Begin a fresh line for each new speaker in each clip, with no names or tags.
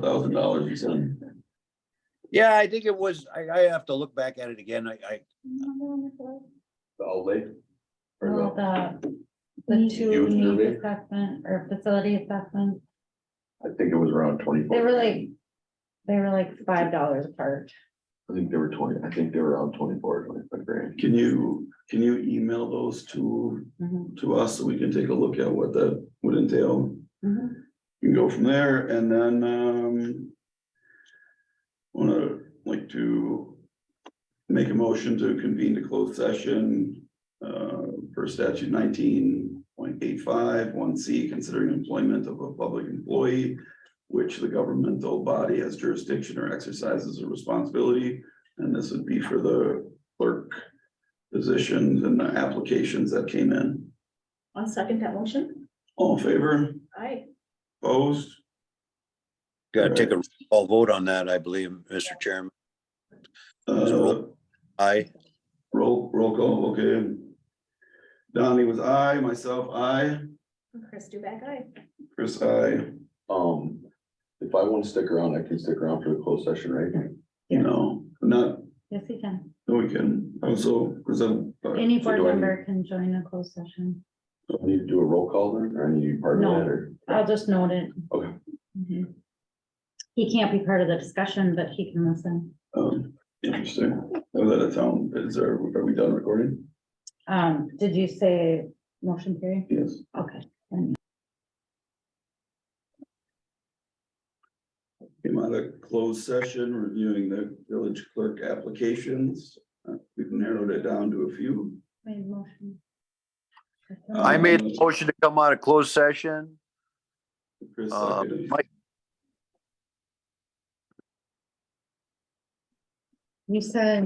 thousand dollars, you said.
Yeah, I think it was, I, I have to look back at it again. I, I,
The outlay? Or
Well,
no,
the, the
Need-
two
Youth
needs
survey?
assessment or facility assessment,
I think it was around twenty-four.
they were like, they were like five dollars apart.
I think they were twenty, I think they were around twenty-four, twenty-five grand.
Can you, can you email those to,
Mm-hmm,
Mhm,
to us so we can take a look at what that would entail?
mm-hmm.
mhm.
And go from there and then, um. Wanna like to make a motion to convene to closed session. Uh, per statute nineteen point eight five one C, considering employment of a public employee. Which the governmental body has jurisdiction or exercises a responsibility, and this would be for the clerk. Positions and the applications that came in.
On second that motion,
All in favor,
aye.
opposed?
gotta take a, i vote on that, I believe, Mr. Chairman.
Uh,
I,
Roll, roll call, okay. Donnie was I, myself, I,
Chris Duback, aye.
Chris, I,
Um, if I want to stick around, I can stick around for the closed session, right?
you know, not,
Yes, you can.
no, we can also present.
Any board
do I need-
member can join a closed session.
Do I Need to do a roll call then, or I need to be part of
No.
that, or?
I'll just note it.
Okay.
Mhm. He can't be part of the discussion, but he can listen.
Um, interesting, was that a town, is there, are we done recording?
Um, did you say motion period?
Yes.
Okay.
Came out of closed session reviewing the village clerk applications. Uh, We've narrowed it down to a few.
Made motion.
I made a motion to come out of closed session.
Chris,
Uh,
seconded.
Mike,
You said,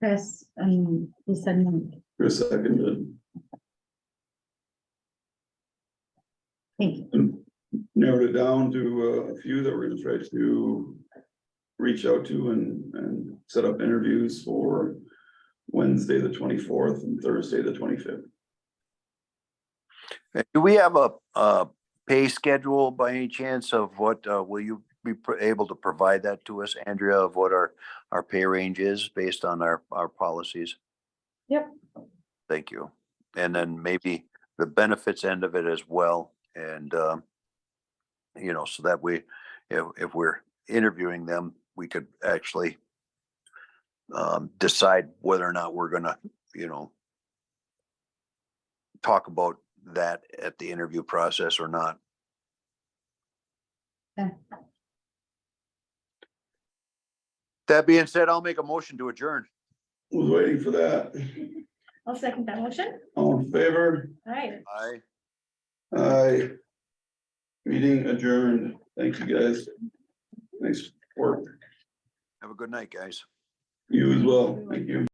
Chris, um, you said, no.
Chris seconded.
thank you.
narrowed it down to uh, a few that we're gonna try to reach out to and, and set up interviews for Wednesday, the twenty-fourth and Thursday, the twenty-fifth.
Do we have a, a pay schedule by any chance of what, uh, will you be pr- able to provide that to us, Andrea, of what our, our pay range is based on our, our policies?
Yep.
Thank you. And then maybe the benefits end of it as well. And, um, you know, so that we, if, if we're interviewing them, we could actually um, decide whether or not we're gonna, you know, talk about that at the interview process or not.
Okay.
That being said, I'll make a motion to adjourn.
Was waiting for that.
I'll second that motion,
All in favor?
aye.
Aye.
Aye. Meeting adjourned. Thank you, guys. Thanks for
Have a good night, guys.
you as well. Thank you.